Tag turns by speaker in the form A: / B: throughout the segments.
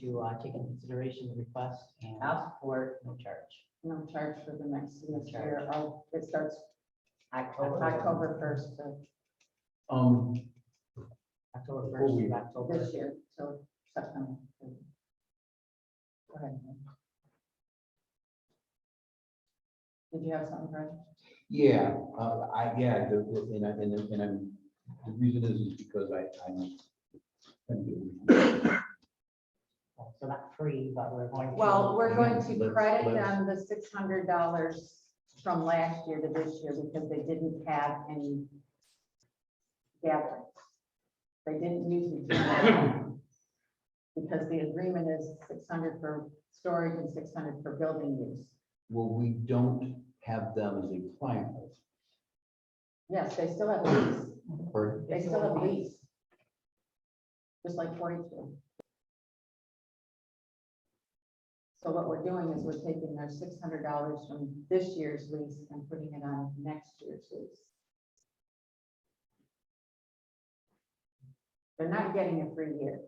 A: to uh, take into consideration the request and ask for no charge.
B: No charge for the next semester.
A: charge.
B: Oh, it starts
A: October.
B: October first of
C: Um,
A: October first
C: Oh,
A: of
C: we-
A: October.
B: this year, so September. Go ahead. Did you have something, Brad?
C: Yeah, uh, I, yeah, the, the- and I, and I- and I'm, the reason is is because I, I'm.
A: So not free, but we're going to.
B: Well, we're going to
C: Let's-
B: credit
C: let's-
B: them the six hundred dollars from last year to this year because they didn't have any gatherings. They didn't use the gym at all. Because the agreement is six hundred for storage and six hundred for building use.
C: Well, we don't have them as a client,
B: Yes, they still have lease,
C: or,
B: they still have lease. Just like forty-two. So what we're doing is we're taking their six hundred dollars from this year's lease and putting it on next year's lease. They're not getting a free year.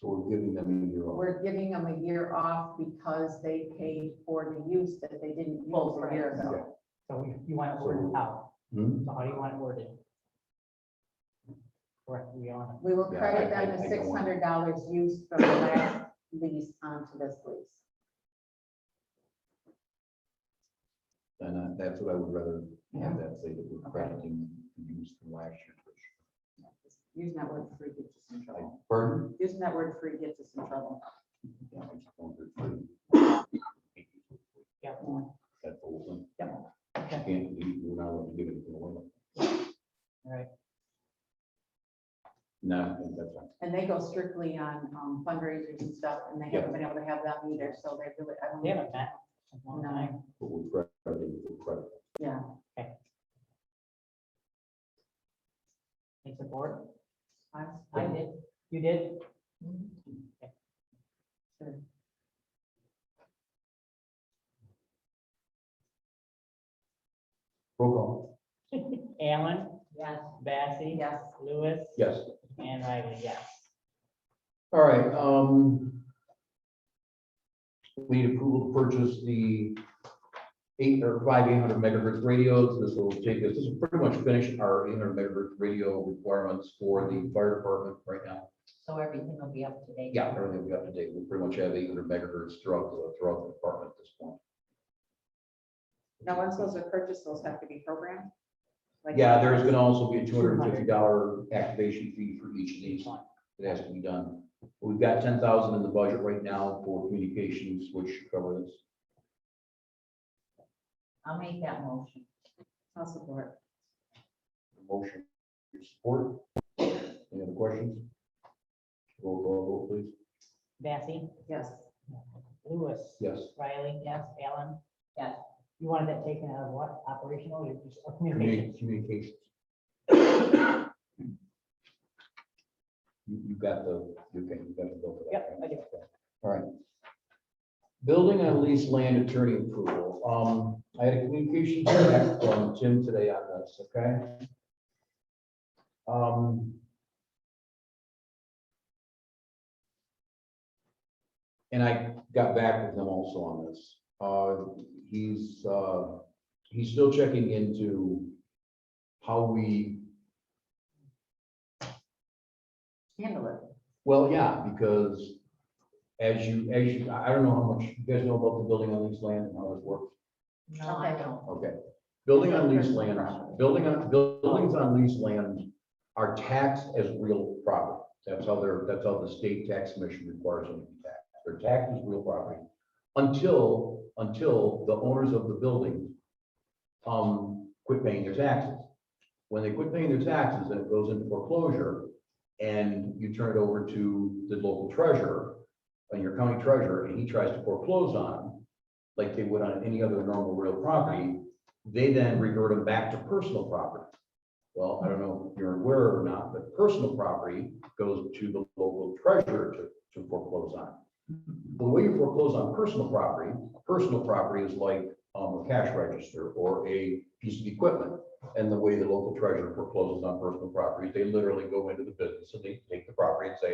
C: so we're giving them a year off.
B: We're giving them a year off because they paid for the use that they didn't use a year ago.
A: So we- you want it worded out.
C: Hmm?
A: So how do you want it worded? Correct, we on
B: We will
C: Yeah,
B: credit
C: I-
B: them
C: I-
B: the
C: I
B: six
C: don't want-
B: hundred dollars used from the last lease onto this lease.
C: And uh, that's what I would rather have that say that we're crediting the use from last year.
B: Using that word free gets us in
C: I-
B: trouble.
C: Pardon?
B: Using that word free gets us in trouble.
C: Yeah, I just wondered.
A: Yeah.
C: That's the whole thing.
A: Yep.
C: Can't, we- we're not allowed to give it away.
A: All right.
C: No, I think that's fine.
B: And they go strictly on um, fundraisers and stuff, and they haven't been able to have that either, so they really, I
A: They
B: don't.
A: haven't met. in a long time.
C: But we're crediting, we're crediting.
B: Yeah,
A: Thanks, the board.
B: I,
A: I
B: I
A: did. You did?
B: did.
C: Roll call.
A: Allen,
B: Yes.
A: Bassie.
B: Yes.
A: Lewis.
C: Yes.
A: And Riley, yes.
C: All right, um. We need approval to purchase the eight or five eight hundred megahertz radios. This will take us, this will pretty much finish our eight hundred megahertz radio requirements for the fire department right now.
D: So everything will be up to date?
C: Yeah, everything we have to date, we pretty much have eight hundred megahertz throughout, the- throughout the department at this point.
B: Now, once those are purchased, those have to be programmed? Like-
C: Yeah, there's gonna also be a two hundred and fifty dollar activation fee for each of these that has to be done. We've got ten thousand in the budget right now for communications, which should cover this.
D: I'll make that motion.
B: I'll support.
C: Motion, your support. Any other questions? Roll call, vote, please.
A: Bassie,
B: Yes.
A: Lewis.
C: Yes.
A: Riley, yes. Allen.
D: Yes.
A: You wanted that taken out of what? Operational or just or communications?
C: Communi- Communications. You, you got the, you got, you got the bill for that.
A: Yep, I do.
C: All right. Building on lease land attorney approval. Um, I had a communication back from Jim today on this, okay? Um. And I got back with him also on this. Uh, he's, uh, he's still checking into how we,
B: Handle it.
C: well, yeah, because as you, as you, I I don't know how much, you guys know about the building on leased land and how this works?
D: No, I don't.
C: Okay. Building on leased land, building on, buildings on leased land are taxed as real property. That's how they're, that's how the state tax commission requires them to be taxed. They're taxed as real property until, until the owners of the building um, quit paying their taxes. When they quit paying their taxes, then it goes into foreclosure and you turn it over to the local treasurer and your county treasurer, and he tries to foreclose on them like they would on any other normal real property, they then revert them back to personal property. Well, I don't know if you're aware or not, but personal property goes to the local treasurer to, to foreclose on. The way you foreclose on personal property, personal property is like, um, a cash register or a piece of equipment. And the way the local treasurer forecloses on personal property, they literally go into the business and they take the property and say,